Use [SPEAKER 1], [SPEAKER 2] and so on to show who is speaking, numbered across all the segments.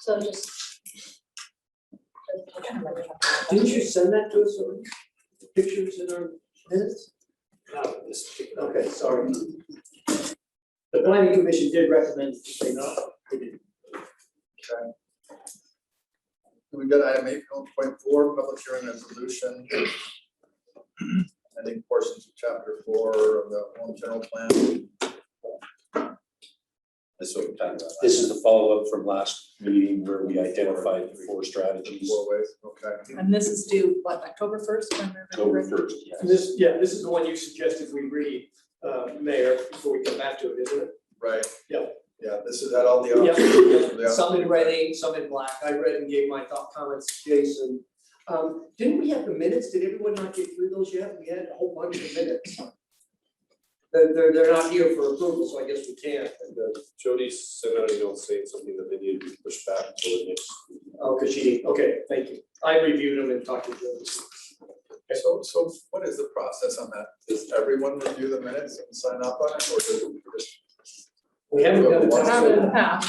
[SPEAKER 1] So just.
[SPEAKER 2] Didn't you send that to us, already? The pictures in our minutes?
[SPEAKER 3] Not with this particular.
[SPEAKER 2] Okay, sorry.
[SPEAKER 3] The planning commission did recommend that they not, they didn't.
[SPEAKER 4] We've got item eight point four, public hearing resolution. Ending portions of chapter four of the home general plan.
[SPEAKER 5] This is what we're talking about. This is the follow-up from last meeting where we identified the four strategies.
[SPEAKER 4] Four ways, okay.
[SPEAKER 6] And this is due, what, October first?
[SPEAKER 5] October first, yes.
[SPEAKER 3] This, yeah, this is the one you suggested we read, uh, Mayor, before we come back to it, isn't it?
[SPEAKER 4] Right.
[SPEAKER 3] Yeah.
[SPEAKER 4] Yeah, this is at all the.
[SPEAKER 3] Yeah,
[SPEAKER 4] Yeah.
[SPEAKER 3] some in red, some in black. I read and gave my thought comments, to Jason. Um, didn't we have the minutes? Did everyone not get through those yet? We had a whole bunch of minutes. They're, they're, they're not here for approval, so I guess we can't.
[SPEAKER 7] uh, Jody sent out an email saying something that they needed to push back until the next. meeting.
[SPEAKER 3] Oh, because she, didn't- okay, thank you. I reviewed them and talked to Jody.
[SPEAKER 4] So, so what is the process on that? Does everyone review the minutes and sign up on it, or does it just?
[SPEAKER 3] We haven't done it.
[SPEAKER 6] Have in the past.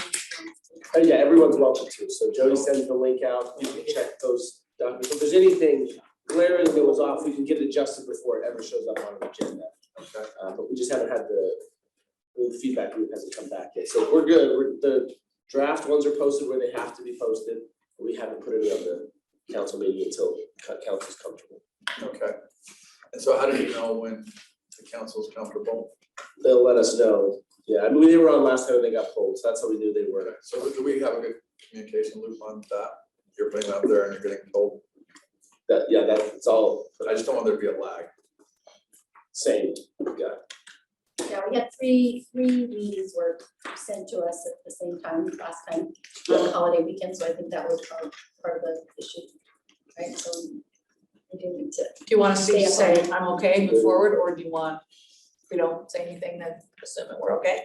[SPEAKER 7] Uh, yeah, everyone's welcome to, so Jody sends the link out, you can check those documents, if there's anything glaring that was off, we can get it adjusted before it ever shows up on an agenda.
[SPEAKER 4] Okay.
[SPEAKER 7] Uh, but we just haven't had the, the feedback group hasn't come back yet, so we're good, we're, the draft ones are posted where they have to be posted. We haven't put it on the council meeting until co- council's comfortable,
[SPEAKER 4] Okay. And so how do you know when the council's comfortable?
[SPEAKER 7] they'll let us know, yeah, I mean, they were on last time and they got pulled, so that's how we knew they were.
[SPEAKER 4] So do we have a good communication loop on that? You're putting it out there and you're getting told,
[SPEAKER 7] That, yeah, that, it's all
[SPEAKER 4] I just don't want there to be a lag.
[SPEAKER 7] same, yeah.
[SPEAKER 1] Yeah, we had three, three meetings were sent to us at the same time last time, on the holiday weekend, so I think that was part, part of the issue. Right, so we do need to,
[SPEAKER 6] Do you want us to
[SPEAKER 1] Stay
[SPEAKER 6] just say,
[SPEAKER 1] up.
[SPEAKER 6] I'm okay, move forward, or do you want, if we don't say anything, then assuming we're okay?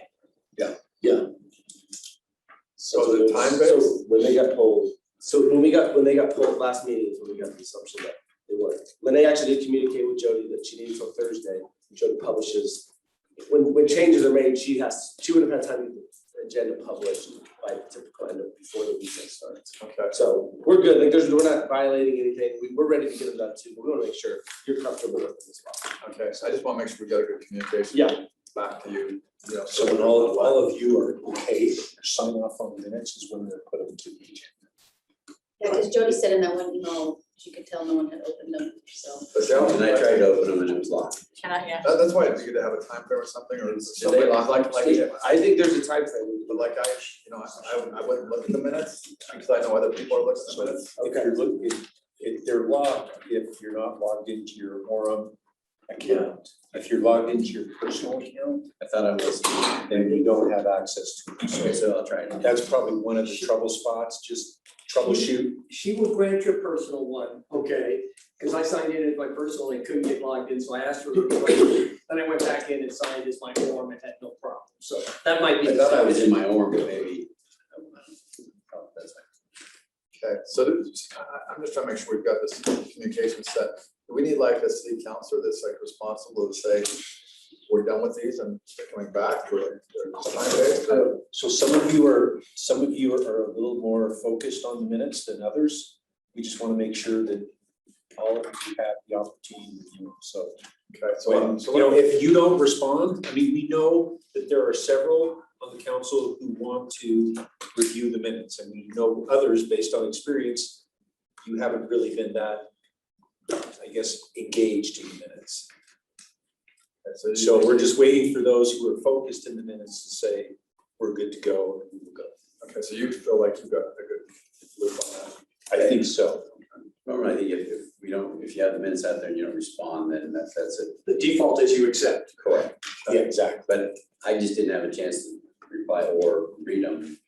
[SPEAKER 4] So the
[SPEAKER 7] those-
[SPEAKER 4] time
[SPEAKER 7] so
[SPEAKER 4] base?
[SPEAKER 7] When they got pulled, so when we got, when they got pulled last meeting, is when we got the assumption that they weren't. Lene actually did communicate with Jody that she needed till Thursday, Jody publishes. When, when changes are made, she has, she would have had time to get the agenda published by the typical end of, before the weekend starts.
[SPEAKER 4] Okay.
[SPEAKER 7] So we're good, like there's, we're not violating anything, we, we're ready to get them done too, but we wanna make sure you're comfortable with it as well.
[SPEAKER 4] Okay, so I just wanna make sure we got a good communication.
[SPEAKER 7] Yeah.
[SPEAKER 4] Back to you, you know,
[SPEAKER 5] So when all, all of you are okay, sign off on the minutes is when they're put into the agenda.
[SPEAKER 1] yeah, because Jody said in that one email, she could tell no one had opened them, so.
[SPEAKER 4] But that was-
[SPEAKER 8] And I tried to open them and it was locked.
[SPEAKER 6] Can I, yeah?
[SPEAKER 4] That, that's why it'd be good to have a time frame or something, or
[SPEAKER 7] Did they
[SPEAKER 4] something
[SPEAKER 7] lock-
[SPEAKER 4] like, like,
[SPEAKER 7] I think there's a time frame.
[SPEAKER 4] but like I, you know, I, I wouldn't- I wouldn't look at the minutes, because I know other people are looking at the minutes.
[SPEAKER 5] If you're looking, if- if they're logged, if you're not logged into your Orem account, if you're logged into your personal account,
[SPEAKER 8] I thought I was,
[SPEAKER 5] then you don't have access to it. So
[SPEAKER 8] so I'll try it.
[SPEAKER 5] that's probably one of the trouble spots, just troubleshoot.
[SPEAKER 3] She will grant your personal one, okay? Because I signed in as my personal and couldn't get logged in, so I asked her to request it. Then I went back in and signed as my form and had no problem. So that might be.
[SPEAKER 8] I thought I was in my org, but maybe. Oh, that's fine.
[SPEAKER 4] Okay, so this- I, I- I'm just trying to make sure we've got this communication set. Do we need like a city councilor that's like responsible to say, we're done with these and they're coming back, or they're time based, or-
[SPEAKER 5] Uh, So some of you are, some of you are a little more focused on the minutes than others. We just want to make sure that all of you have the opportunity to review. them. So
[SPEAKER 4] Okay, so,
[SPEAKER 5] when,
[SPEAKER 4] um, so
[SPEAKER 5] you know, if you don't respond, I mean, we know that there are several on the council who want to review the minutes. And we know others based on experience, you haven't really been that, I guess, engaged in the minutes.
[SPEAKER 4] so you-
[SPEAKER 5] So we're just waiting for those who are focused in the minutes to say, we're good to go and we will go.
[SPEAKER 4] Okay, so you feel like you've got a good loop on that.
[SPEAKER 5] I think so.
[SPEAKER 8] Normally, I think if, if we don't, if you have the minutes out there and you don't respond, then that's, that's it.
[SPEAKER 3] The default is you accept.
[SPEAKER 8] Correct.
[SPEAKER 5] Yeah, exactly.
[SPEAKER 8] But I just didn't have a chance to reply or read them.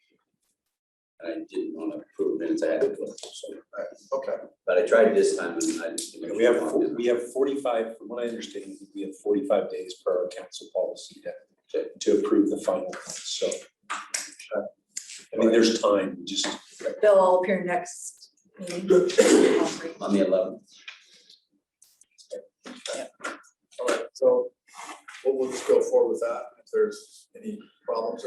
[SPEAKER 8] And I didn't want to approve minutes I had to put, so,
[SPEAKER 4] Okay,
[SPEAKER 8] but I tried this time and I just.
[SPEAKER 5] We have, fo- we have forty-five, from what I understand, we have forty-five days per our council policy to- to, to approve the final, one, so. I mean, there's time, just,
[SPEAKER 6] They'll all appear next meeting. all three.
[SPEAKER 8] On the eleventh.
[SPEAKER 4] all right, so we'll, we'll just go forward with that. If there's any problems or